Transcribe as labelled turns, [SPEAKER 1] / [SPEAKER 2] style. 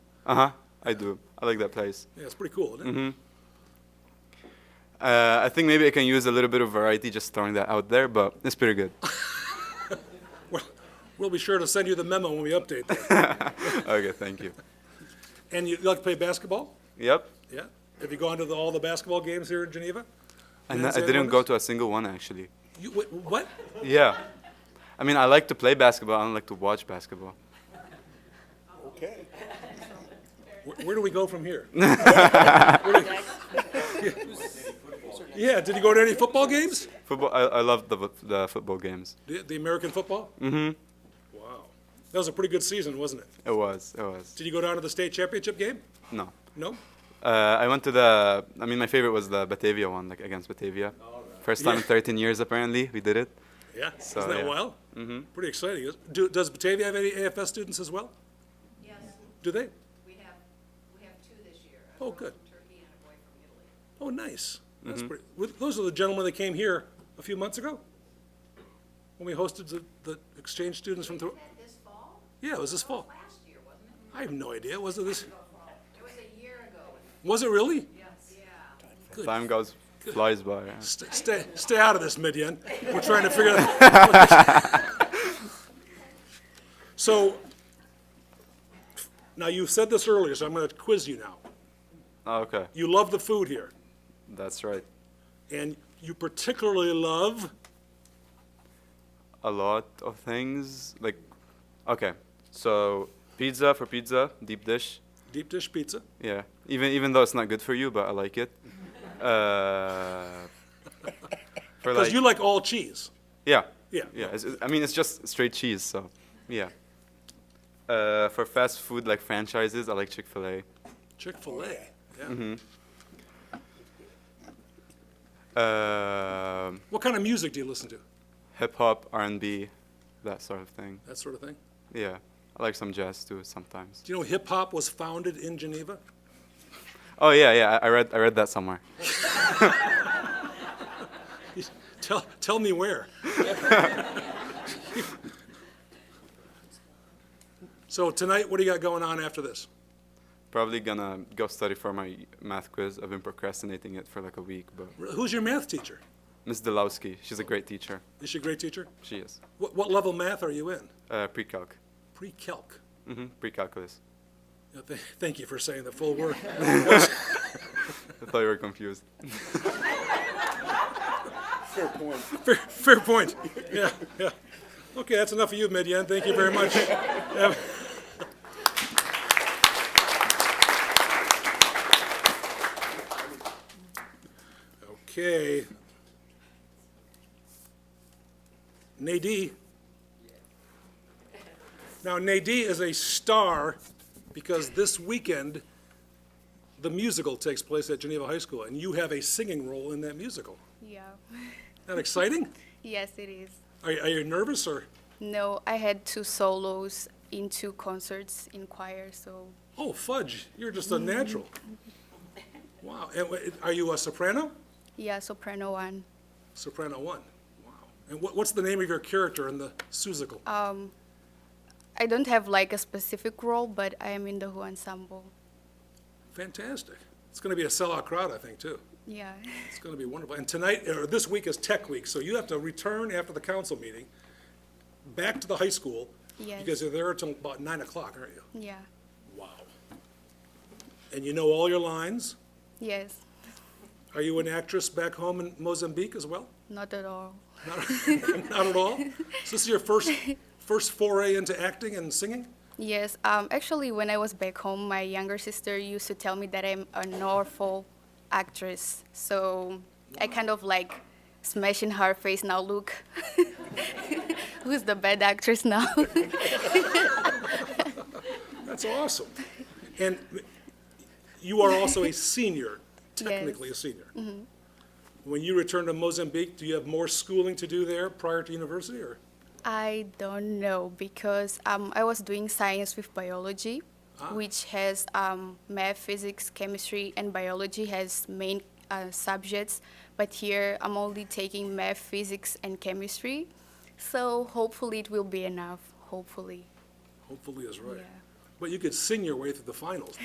[SPEAKER 1] Uh huh. I do. I like that place.
[SPEAKER 2] Yeah, it's pretty cool, isn't it?
[SPEAKER 1] Uh, I think maybe I can use a little bit of variety, just throwing that out there, but it's pretty good.
[SPEAKER 2] We'll- We'll be sure to send you the memo when we update that.
[SPEAKER 1] okay, thank you.
[SPEAKER 2] And you like to play basketball?
[SPEAKER 1] Yep.
[SPEAKER 2] Yeah? Have you gone to the- all the basketball games here in Geneva?
[SPEAKER 1] And
[SPEAKER 2] Men's
[SPEAKER 1] I
[SPEAKER 2] and
[SPEAKER 1] didn't go
[SPEAKER 2] women's?
[SPEAKER 1] to a single one actually.
[SPEAKER 2] You, wh- what?
[SPEAKER 1] Yeah. I mean, I like to play basketball. I don't like to watch basketball.
[SPEAKER 2] Okay. Where, where do we go from here? Yeah, did you go to any football games?
[SPEAKER 1] Football. I, I love the the football games.
[SPEAKER 2] The, the American football? Mm-hmm. Wow. That was a pretty good season, wasn't it?
[SPEAKER 1] It was. It was.
[SPEAKER 2] Did you go down to the state championship game?
[SPEAKER 1] No.
[SPEAKER 2] No?
[SPEAKER 1] Uh, I went to the. I mean, my favorite was the Batavia one, like against Batavia. First time in
[SPEAKER 2] Yeah.
[SPEAKER 1] 13 years, apparently, we did it.
[SPEAKER 2] Yeah,
[SPEAKER 1] So,
[SPEAKER 2] isn't that
[SPEAKER 1] yeah.
[SPEAKER 2] wild? Mm-hmm. Pretty exciting. Is- Do, does Batavia have any AFS students as well?
[SPEAKER 3] Yes,
[SPEAKER 2] Do they?
[SPEAKER 3] we have, we have two this year. a
[SPEAKER 2] Oh,
[SPEAKER 3] girl
[SPEAKER 2] good.
[SPEAKER 3] from Turkey and a boy from Italy.
[SPEAKER 2] Oh, nice. That's pretty, with- those are the gentlemen that came here a few months ago? When we hosted the, the exchange students from, Thor-
[SPEAKER 3] That this fall?
[SPEAKER 2] yeah, it was this fall.
[SPEAKER 3] Last year, wasn't it?
[SPEAKER 2] I have no idea, was it this,
[SPEAKER 3] It was a year ago.
[SPEAKER 2] was it really?
[SPEAKER 3] Yes. Yeah.
[SPEAKER 1] Time goes flies by. yeah.
[SPEAKER 2] St- Stay, stay out of this, Midian. We're trying to figure out. So, now you said this earlier, so I'm gonna quiz you now.
[SPEAKER 1] Okay,
[SPEAKER 2] You love the food here,
[SPEAKER 1] that's right.
[SPEAKER 2] and you particularly love,
[SPEAKER 1] A lot of things like, okay, so pizza for pizza, deep dish.
[SPEAKER 2] deep dish pizza.
[SPEAKER 1] Yeah, even even though it's not good for you, but I like it. Uh, for
[SPEAKER 2] Because
[SPEAKER 1] like,
[SPEAKER 2] you like all cheese.
[SPEAKER 1] yeah,
[SPEAKER 2] Yeah.
[SPEAKER 1] yeah. It's, I mean, it's just straight cheese, so yeah. Uh, for fast food like franchises, I like Chick Fil A.
[SPEAKER 2] Chick fil A. Yeah.
[SPEAKER 1] Um
[SPEAKER 2] What kind of music do you listen to?
[SPEAKER 1] hip hop, R and B, that sort of thing.
[SPEAKER 2] That sort of thing.
[SPEAKER 1] Yeah, I like some jazz too sometimes.
[SPEAKER 2] Do you know hip hop was founded in Geneva?
[SPEAKER 1] Oh yeah, yeah. I I read I read that somewhere.
[SPEAKER 2] Tell, tell me where. so, tonight, what do you got going on after this?
[SPEAKER 1] Probably gonna go study for my math quiz. I've been procrastinating it for like a week, but
[SPEAKER 2] Who's your math teacher?
[SPEAKER 1] Miss Delowski, she's a great teacher.
[SPEAKER 2] Is she a great teacher?
[SPEAKER 1] She is.
[SPEAKER 2] What, what level math are you in?
[SPEAKER 1] Uh, pre-calc.
[SPEAKER 2] Pre calc.
[SPEAKER 1] hmm Pre-calculus.
[SPEAKER 2] Thank you for saying the full word.
[SPEAKER 1] I thought you were confused.
[SPEAKER 2] Fair, fair point. Yeah, yeah. Okay, that's enough of you, Midian. Thank you very much. Yeah. Okay. Nadie. Now, Nadie is a star because this weekend, the musical takes place at Geneva High School, and you have a singing role in that musical.
[SPEAKER 4] Yeah.
[SPEAKER 2] That exciting?
[SPEAKER 4] yes, it is.
[SPEAKER 2] Are, are you nervous or?
[SPEAKER 4] No, I had two solos in two concerts in choir, so
[SPEAKER 2] Oh, fudge! You're just a natural. Wow. And wha- are you a soprano?
[SPEAKER 4] yeah, soprano one.
[SPEAKER 2] Soprano one. Wow. And what, what's the name of your character in the Susical?
[SPEAKER 4] I don't have like a specific role, but I am in the Who ensemble.
[SPEAKER 2] Fantastic. It's going to be a sellout crowd, I think, too.
[SPEAKER 4] Yeah.
[SPEAKER 2] It's going to be wonderful. And tonight, or this week is Tech Week, so you have to return after the council meeting back to the high school.
[SPEAKER 4] Yes.
[SPEAKER 2] Because you're there until about nine o'clock, aren't you?
[SPEAKER 4] yeah.
[SPEAKER 2] Wow. And you know all your lines.
[SPEAKER 4] Yes.
[SPEAKER 2] Are you an actress back home in Mozambique as well?
[SPEAKER 4] Not at all.
[SPEAKER 2] Not at all? So this is your first, first foray into acting and singing?
[SPEAKER 4] Yes. Um, actually, when I was back home, my younger sister used to tell me that I'm an awful actress. So I kind of like smash in her face now. Look, who's the bad actress now?
[SPEAKER 2] That's awesome. And you are also a senior, technically a senior. When you return to Mozambique, do you have more schooling to do there prior to university, or?
[SPEAKER 4] I don't know because um, I was doing science with biology, which has um, math, physics, chemistry, and biology has main uh, subjects. But here I'm only taking math, physics, and chemistry. So hopefully it will be enough. Hopefully.
[SPEAKER 2] Hopefully is right.
[SPEAKER 4] Yeah.
[SPEAKER 2] But you could sing your way through the finals.